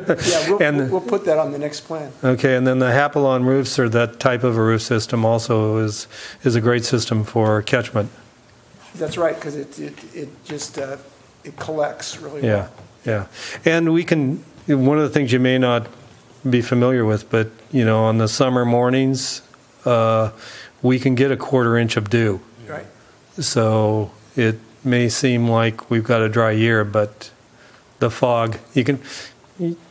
Yeah, we'll, And- we'll put that on the next plan. Okay, and then the Hapalon roofs or that type of a roof system also is, is a great system for catchment. That's right, because it, it, it just, uh, it collects really Yeah, well. yeah. And we can, one of the things you may not be familiar with, but, you know, on the summer mornings, uh, we can get a quarter inch of dew. Right? So it may seem like we've got a dry year, but the fog, you can,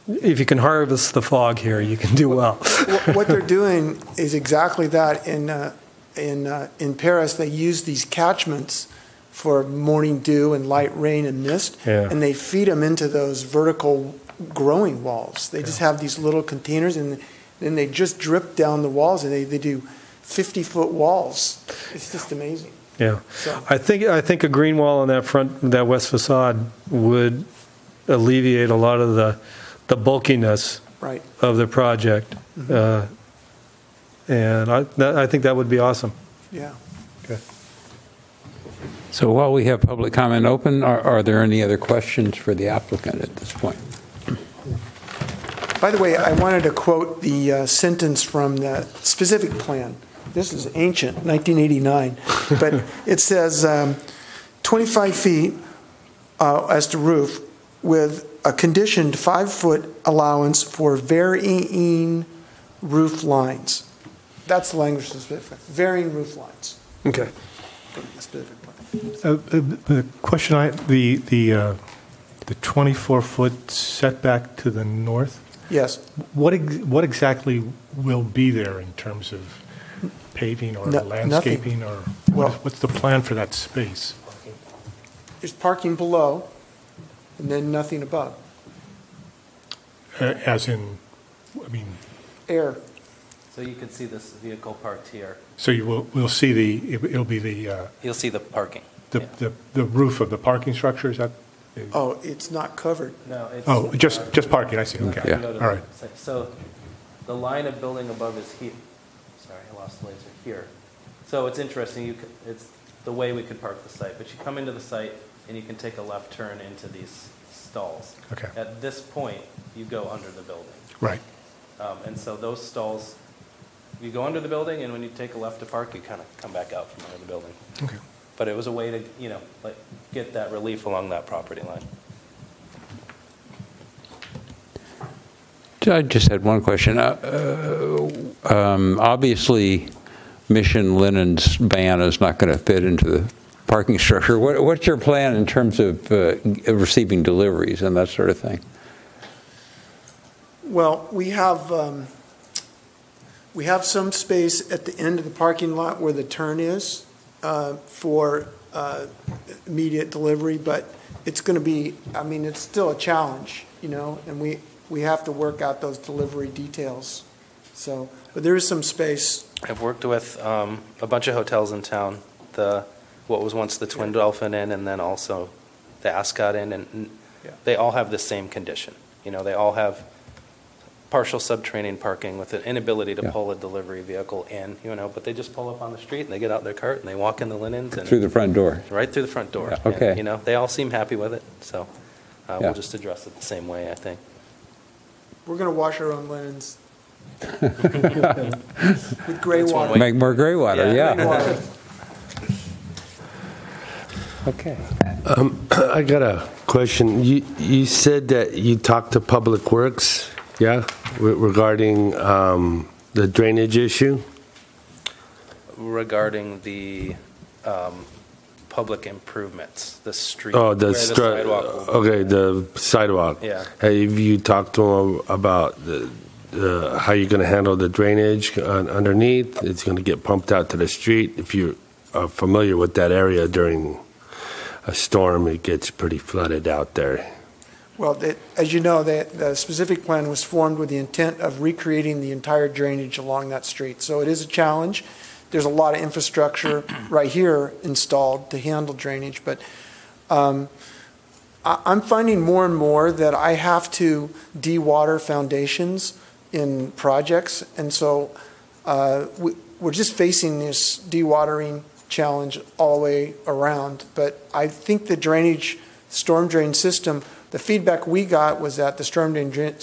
if you can harvest the fog here, you can do well. Wh- What they're doing is exactly that. In, uh, in, uh, in Paris, they use these catchments for morning dew and light rain and mist, Yeah. and they feed them into those vertical growing walls. They just have these little containers, and then they just drip down the walls, and they, they do 50-foot walls. It's just amazing. Yeah. So- I think, I think a green wall on that front, that west facade would alleviate a lot of the, the bulkiness Right. of the project. Uh, And I, that- I think that would be awesome. Yeah. So while we have public comment open, are, are there any other questions for the applicant at this point? By the way, I wanted to quote the uh, sentence from the specific plan. This is ancient, 1989, but it says um, 25 feet uh, as to roof with a conditioned five-foot allowance for varying roof lines. That's the language specific, varying roof lines. Okay. from the specific plan. Uh, uh, The question I, the, the, uh, the 24-foot setback to the north, Yes, what, ex- what exactly will be there in terms of paving or No- nothing. landscaping or? Well- what- What's the plan for that space? there's parking below and then nothing above, Uh, As in, I mean, air. So you can see this vehicle parked here. so you will, we'll see the, it- it'll be the, uh, You'll see the parking. the, Yeah. the- the roof of the parking structure, is that? Oh, it's not covered. No, it's. uh, Oh, just, just parking, I see, okay, Yeah. Go to the all right. site. So the line of building above is here. Sorry, I lost the laser, here. So it's interesting, you, c- it's the way we could park the site, but you come into the site and you can take a left turn into these stalls. Okay. At this point, you go under the building. Right, Um, And so those stalls, you go under the building, and when you take a left to park, you kind of come back out from under the building. okay. But it was a way to, you know, like, get that relief along that property line. I just had one question. Uh, uh, um, Obviously, Mission Linen's van is not going to fit into the parking structure. What- What's your plan in terms of uh, receiving deliveries and that sort of thing? Well, we have, um, we have some space at the end of the parking lot where the turn is uh, for uh, immediate delivery, but it's going to be, I mean, it's still a challenge, you know, and we, we have to work out those delivery details. So, but there is some space. I've worked with um, a bunch of hotels in town, the, what was once the Twin Dolphin Inn, and then also the Ascot Inn, and n- Yeah. they all have the same condition. You know, they all have partial subterranean parking with an inability to Yeah. pull a delivery vehicle in, you know, but they just pull up on the street, and they get out their cart, and they walk in the linens, and Through the front door? right through the front door. Yeah, And, okay. You know, they all seem happy with it, so Yeah. uh, we'll just address it the same way, I think. We're going to wash our own linens with gray That's one water. way. Make more gray water, Yeah. Gray yeah. water. Okay. I got a question. You, you said that you talked to Public Works, yeah, re- regarding um, the drainage issue? regarding the um, public improvements, the street. Oh, the where stru- sidewalk will be. Okay, the sidewalk. Yeah. Have you talked to them about the, the, how you're going to handle the drainage un- underneath? It's going to get pumped out to the street. If you are familiar with that area during a storm, it gets pretty flooded out there. Well, that- as you know, that the specific plan was formed with the intent of recreating the entire drainage along that street. So it is a challenge. There's a lot of infrastructure right here installed to handle drainage, but um, I- I'm finding more and more that I have to de-water foundations in projects, and so uh, we- we're just facing this de-watering challenge all the way around. But I think the drainage, storm drain system the feedback we got was that the storm drain dra-